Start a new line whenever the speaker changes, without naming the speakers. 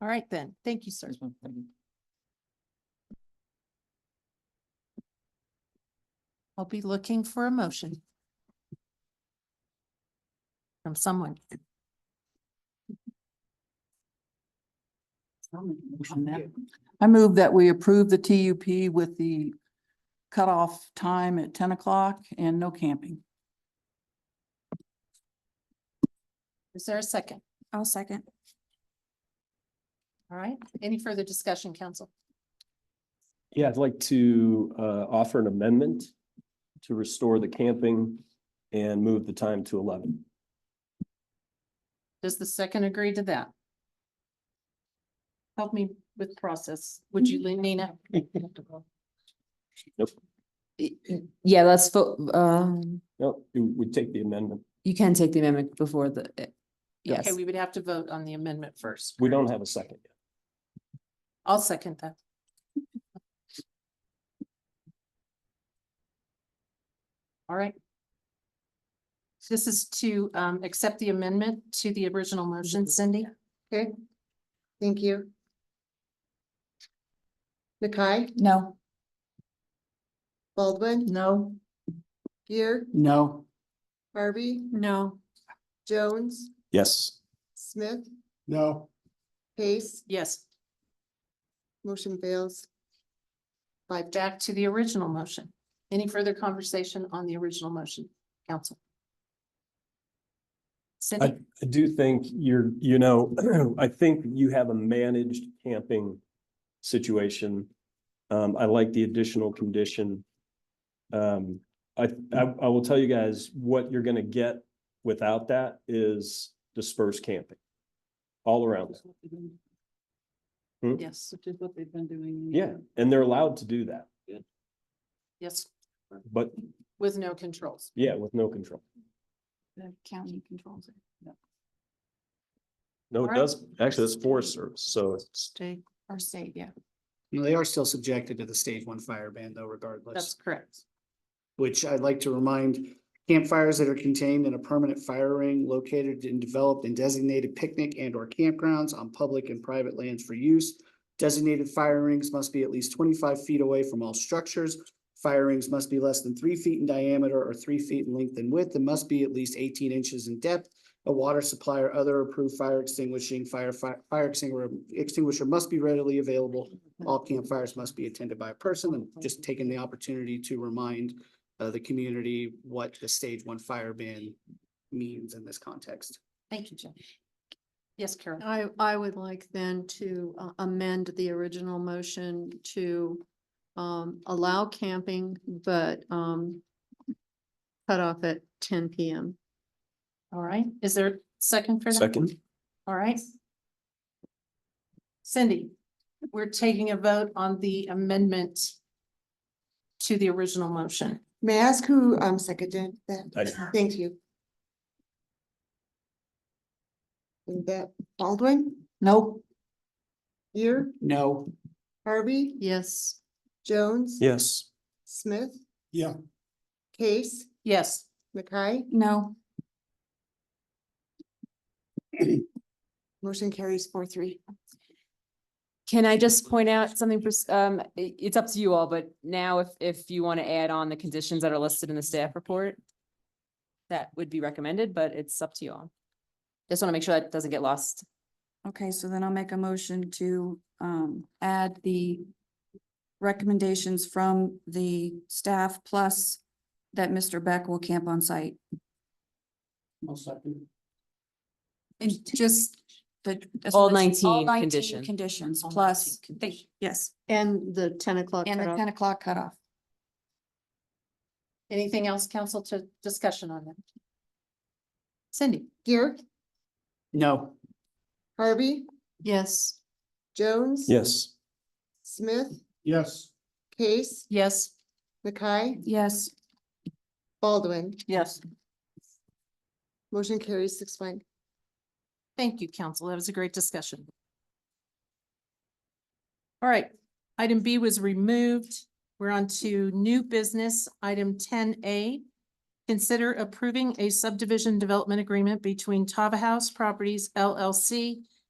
All right then. Thank you, sir. I'll be looking for a motion. From someone.
I move that we approve the TUP with the cutoff time at ten o'clock and no camping.
Is there a second?
I'll second.
All right. Any further discussion, council?
Yeah, I'd like to uh offer an amendment to restore the camping and move the time to eleven.
Does the second agree to that? Help me with process. Would you, Nina?
Yeah, let's vote, um,
No, you would take the amendment.
you can take the amendment before the, eh, yes.
Okay, we would have to vote on the amendment first.
We don't have a second. yet.
I'll second that. All right. This is to um accept the amendment to the original motion, Cindy.
Mm-hmm. Okay, thank you. Nakai,
No.
Baldwin,
No.
Gear,
No.
Harvey,
No.
Jones,
Yes.
Smith,
No.
Pace,
Yes,
motion fails. Five to
back to the original motion. Any further conversation on the original motion, council? Cindy?
I do think you're, you know, I think you have a managed camping situation. Um, I like the additional condition. Um, I, I, I will tell you guys what you're gonna get without that is dispersed camping. All around. Hmm?
Yes,
Which is what they've been doing.
Yeah, and they're allowed to do that,
yes,
but
with no controls.
yeah, with no control.
The county controls it.
No, it
Alright.
does, actually, that's Forest Service, so it's,
Stay,
Or say, yeah.
No, They are still subjected to the stage one fire ban though
that's
regardless,
correct.
which I'd like to remind campfires that are contained in a permanent fire ring located and developed in designated picnic and or campgrounds on public and private lands for use. Designated fire rings must be at least twenty-five feet away from all structures. Fire rings must be less than three feet in diameter or three feet in length and width and must be at least eighteen inches in depth. A water supply or other approved fire extinguishing fire fi- fire extinguisher extinguisher must be readily available all campfires must be attended by a person and just taking the opportunity to remind uh, the community what the stage one fire ban means in this context.
Thank you, Jen. Yes, Carol.
I, I would like then to uh, amend the original motion to um, allow camping, but um, cut off at ten PM.
All right, is there a second for that?
second,
All right. Cindy, we're taking a vote on the amendment to the original motion.
May I ask who um seconded that?
I-
Thank you. And that Baldwin,
Nope.
Gear,
No,
Harvey,
Yes,
Jones,
yes,
Smith,
Yeah.
Case,
Yes,
Nakai,
No,
motion carries four three.
Can I just point out something, for s- um, i- it's up to you all, but now if, if you want to add on the conditions that are listed in the staff report, that would be recommended, but it's up to you all. Just want to make sure that doesn't get lost.
okay, so then I'll make a motion to um add the recommendations from the staff plus that Mr. Beck will camp on site. And just the.
All
so it's
19 condition.
Conditions
All
plus,
19 condition.
they- yes,
and the ten o'clock
and the
cutoff.
ten o'clock cutoff.
anything else, council, to discussion on that? Cindy?
Gear,
no,
Harvey,
Yes,
Jones.
yes,
Smith,
Yes.
Case,
Yes.
Nakai,
Yes,
Baldwin.
Yes.
Motion carries six one.
Thank you, council. That was a great discussion. All right, item B was removed. We're on to new business, item ten A. Consider approving a subdivision development agreement between Tava House Properties LLC